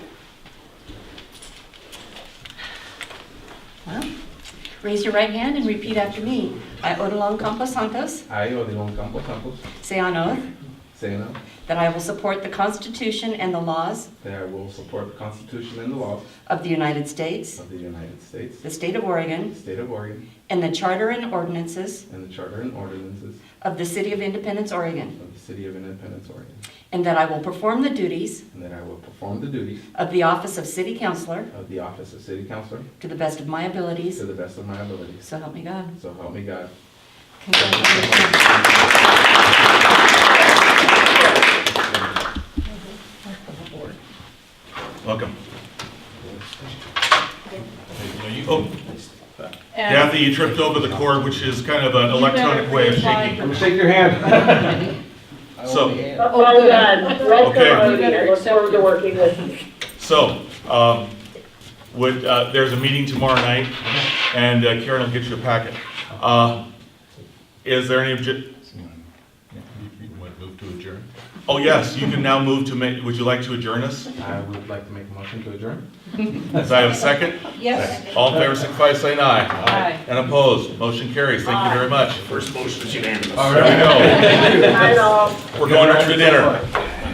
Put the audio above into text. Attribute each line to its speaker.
Speaker 1: Well, Raise your right hand and repeat after me. I, Odilon Campos Santos,
Speaker 2: I, Odilon Campos Campos,
Speaker 1: say on oath
Speaker 2: say now
Speaker 1: that I will support the Constitution and the laws
Speaker 2: that I will support the Constitution and the laws
Speaker 1: of the United States,
Speaker 2: of the United States,
Speaker 1: the state of Oregon,
Speaker 2: State of Oregon,
Speaker 1: and the charter and ordinances
Speaker 2: and the Charter and ordinances
Speaker 1: of the City of Independence, Oregon,
Speaker 2: of the City of Independence, Oregon,
Speaker 1: and that I will perform the duties
Speaker 2: and that I will perform the duties
Speaker 1: of the office of City Councilor
Speaker 2: of the office of City Councilor
Speaker 1: to the best of my abilities,
Speaker 2: to the best of my abilities.
Speaker 1: so help me God.
Speaker 2: So help me God.
Speaker 1: Congratulations.
Speaker 3: Welcome. Oh, Kathy, you tripped over the cord, which is kind of an electronic way of shaking.
Speaker 2: gonna shake your hand.
Speaker 3: So,
Speaker 4: Oh, good. Let's
Speaker 3: Okay.
Speaker 4: go over there. Look forward to working with you.
Speaker 3: so, um, would, uh, there's a meeting tomorrow night, and uh, Karen will get you a packet. Uh, Is there any obje,
Speaker 5: You want to move to adjourn?
Speaker 3: oh, yes, you can now move to ma, would you like to adjourn us?
Speaker 2: I would like to make a motion to adjourn.
Speaker 3: Does I have a second?
Speaker 6: Yes.
Speaker 3: All in favor, signify by saying aye. Aye. And opposed, motion carries. Thank you very much.
Speaker 5: First motion is unanimous.
Speaker 3: There we go.
Speaker 4: Bye, all.
Speaker 3: We're going home to dinner.